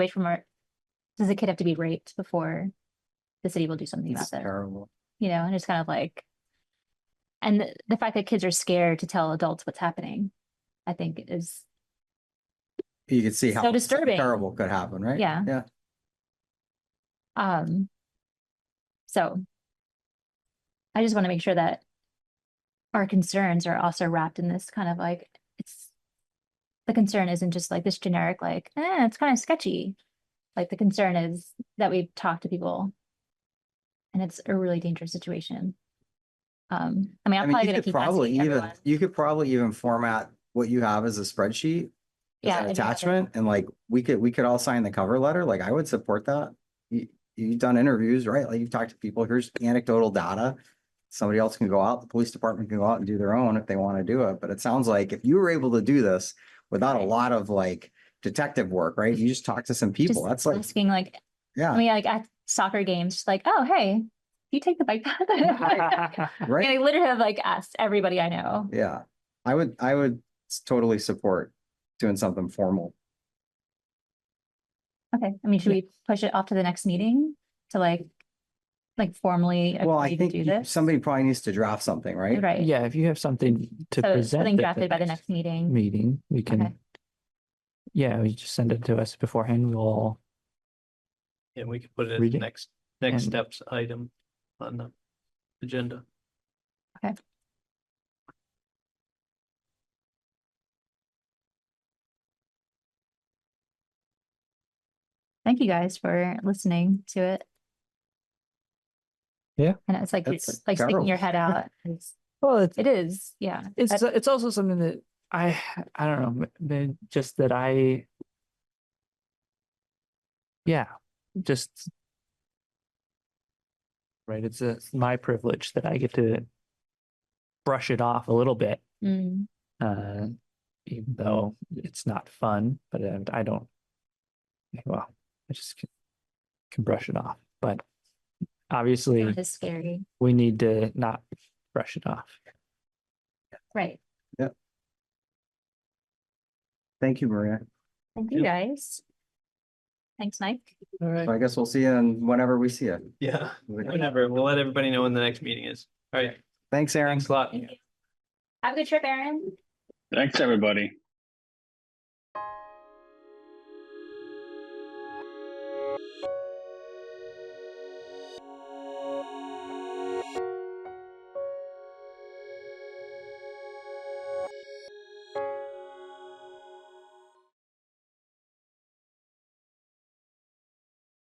wait for more. Does the kid have to be raped before the city will do something It's about it? terrible. You know, and it's kind of like. And the, the fact that kids are scared to tell adults what's happening, I think is, You can see how. So disturbing. Terrible could happen, right? Yeah. Yeah. um. So. I just want to make sure that. Our concerns are also wrapped in this kind of like, it's. The concern isn't just like this generic, like, eh, it's kind of sketchy. Like the concern is that we've talked to people. And it's a really dangerous situation. Um, I mean, I I'm mean, probably you gonna could keep probably asking even, everyone. you could probably even format what you have as a spreadsheet. as Yeah, I an do have it. Attachment and like, we could, we could all sign the cover letter. Like I would support that. You, you've done interviews, right? Like you've talked to people, here's anecdotal data. Somebody else can go out, the police department can go out and do their own if they want to do it. But it sounds like if you were able to do this without a lot of like detective work, right? You just talk to some people. Just That's like, Asking like, I yeah, mean, like at soccer games, just like, oh, hey, do you take the bike path? I right? mean, I literally have like asked everybody I know. Yeah, I would, I would s- totally support doing something formal. Okay, I mean, should we push it off to the next meeting to like, like formally Well, I agree to think do you- this? somebody probably needs to draft something, right? Right. Yeah, if you have something So to present. something at drafted by the next meeting. Meeting, we can. Yeah, you just send it to us beforehand. We'll, all- And we could put it as Read the it. next, next And- steps item on the agenda. Thank you guys for listening to it. Yeah. And it's like, That's it's like sticking your head out. It's- well, it's, It uh, is, yeah. it's, That- it's also something that I, I don't know, m- may- just that I. Yeah, just. Right, it's a, it's my privilege that I get to brush it off a little bit. mm, uh, even though it's not fun, but uh, I don't. Well, I just can, can brush it off, but obviously It is scary, we need to not brush it off. right? Thank you, Maria. Thank you, guys. Thanks, Mike. All So right. I guess we'll see you in whenever we see you. Yeah, whenever. We'll let everybody know when the next meeting is. All right, Thanks, Aaron. thanks a lot. Have a good trip, Aaron. Thanks, everybody.